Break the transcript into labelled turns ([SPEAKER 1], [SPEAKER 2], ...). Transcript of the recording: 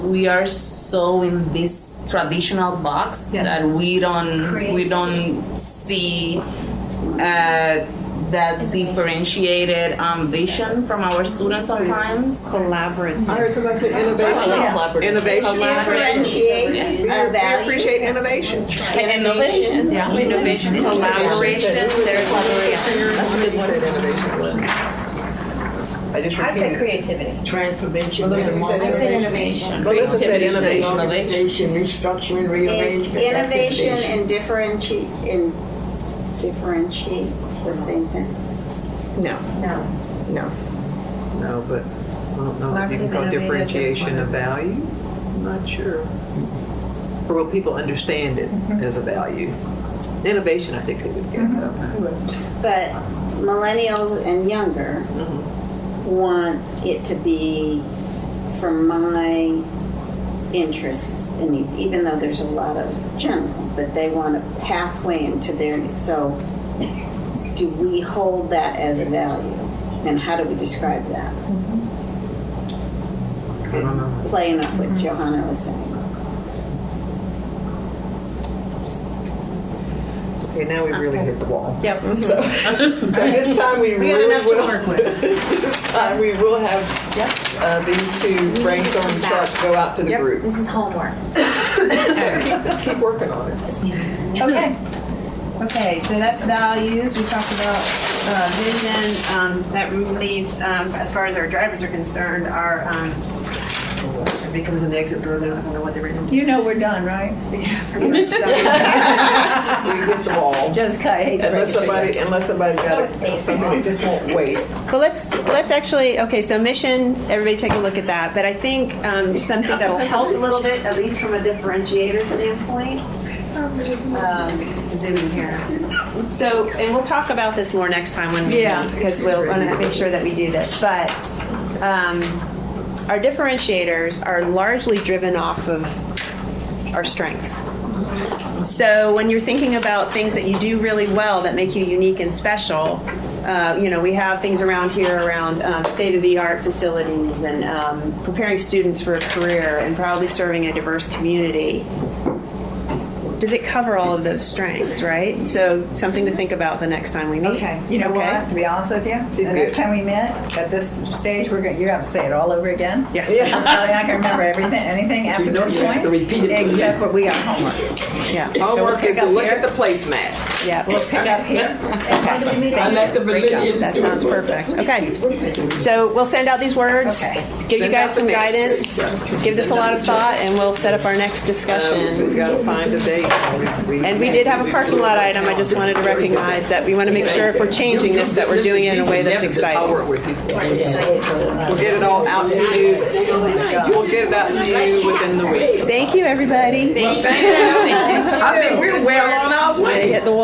[SPEAKER 1] we are so in this traditional box
[SPEAKER 2] Yes.
[SPEAKER 1] that we don't we
[SPEAKER 3] Creativity.
[SPEAKER 1] don't see uh, that differentiated um, vision from our students sometimes.
[SPEAKER 2] Collaborative.
[SPEAKER 4] I heard somebody say innovation. Innovation.
[SPEAKER 3] Differentiate and
[SPEAKER 4] We
[SPEAKER 3] value.
[SPEAKER 4] appreciate innovation.
[SPEAKER 3] Innovation.
[SPEAKER 2] Yeah.
[SPEAKER 1] uh, Innovation, collaboration, there's
[SPEAKER 4] That's
[SPEAKER 1] a good one.
[SPEAKER 4] innovation. I just
[SPEAKER 3] I said
[SPEAKER 4] repeated.
[SPEAKER 3] creativity.
[SPEAKER 5] Transformation,
[SPEAKER 4] Melissa, you said
[SPEAKER 3] I said
[SPEAKER 4] innovation.
[SPEAKER 3] innovation.
[SPEAKER 4] Melissa said innovation.
[SPEAKER 5] reorganization, restructuring,
[SPEAKER 3] It's
[SPEAKER 5] rearrangement. That's
[SPEAKER 3] innovation and differentiate, and differentiate, the same thing?
[SPEAKER 4] No,
[SPEAKER 3] No.
[SPEAKER 4] no. No, but I don't know if you can
[SPEAKER 2] Collaborative,
[SPEAKER 4] call
[SPEAKER 2] innovative,
[SPEAKER 4] differentiation a value. I'm not sure. Or will people understand it as a value? Innovation, I think they would get though.
[SPEAKER 3] But millennials and younger want it to be for my interests and needs, even though there's a lot of general, but they want a pathway into their, so do we hold that as a value? And how do we describe that?
[SPEAKER 4] I don't know.
[SPEAKER 3] Playing off what Johanna was saying.
[SPEAKER 4] Okay, now we really hit the wall.
[SPEAKER 2] Yep.
[SPEAKER 4] So, so this time we
[SPEAKER 2] We got
[SPEAKER 4] really
[SPEAKER 2] enough to
[SPEAKER 4] will.
[SPEAKER 2] work with.
[SPEAKER 4] this time we will have uh, these two brainstorm charts go out to the group.
[SPEAKER 6] This is homework.
[SPEAKER 4] keep, keep working on it.
[SPEAKER 2] Okay. Okay, so that's values, we talked about uh, vision, um, that leaves, um, as far as our drivers are concerned, our, um,
[SPEAKER 7] Everybody comes in the exit door, they don't even know what they're in.
[SPEAKER 6] You know we're done, right?
[SPEAKER 4] We hit the wall.
[SPEAKER 6] Just cut, I hate to break
[SPEAKER 4] Unless
[SPEAKER 6] it to you.
[SPEAKER 4] somebody, unless somebody got it, something they just won't wait.
[SPEAKER 2] But let's, let's actually, okay, so mission, everybody take a look at that, but I think um, something that'll help a little bit, at least from a differentiator standpoint. um, Zoom in here. So, and we'll talk about this more next time when we,
[SPEAKER 6] Yeah.
[SPEAKER 2] because we'll want to make sure that we do this, but um, our differentiators are largely driven off of our strengths. So when you're thinking about things that you do really well that make you unique and special, uh, you know, we have things around here around um, state-of-the-art facilities and um, preparing students for a career and proudly serving a diverse community. Does it cover all of those strengths, right? So something to think about the next time we meet.
[SPEAKER 6] Okay, you know
[SPEAKER 2] Okay.
[SPEAKER 6] what, to be honest with you, the next time we met, at this stage, we're going, you have to say it all over again.
[SPEAKER 2] Yeah.
[SPEAKER 6] I'm probably not gonna remember everything, anything after
[SPEAKER 5] know
[SPEAKER 6] this
[SPEAKER 5] you have
[SPEAKER 6] point.
[SPEAKER 5] to repeat it.
[SPEAKER 6] Except what we got homework.
[SPEAKER 2] Yeah.
[SPEAKER 6] we'll
[SPEAKER 4] Homework is
[SPEAKER 6] pick
[SPEAKER 4] to
[SPEAKER 6] up
[SPEAKER 4] look
[SPEAKER 6] here.
[SPEAKER 4] at the placemat.
[SPEAKER 2] Yeah.
[SPEAKER 6] We'll pick up here.
[SPEAKER 5] I like the validity.
[SPEAKER 2] That sounds perfect. Okay. So we'll send out these words,
[SPEAKER 6] Okay.
[SPEAKER 2] give you
[SPEAKER 4] Send out
[SPEAKER 2] guys some
[SPEAKER 4] the
[SPEAKER 2] guidance,
[SPEAKER 4] mix.
[SPEAKER 2] give this a lot of thought, and we'll set up our next
[SPEAKER 4] Um, we
[SPEAKER 2] discussion.
[SPEAKER 4] gotta find a date.
[SPEAKER 2] And we did have a parking lot item. I just wanted to recognize that we want to make sure if we're changing this, that we're doing it in a way that's
[SPEAKER 4] I'll
[SPEAKER 2] exciting.
[SPEAKER 4] work with you. We'll get it all out to you. We'll get it out to you within the week.
[SPEAKER 2] Thank you, everybody.
[SPEAKER 4] Thank you. I think we're well on our way.
[SPEAKER 2] Hit the wall.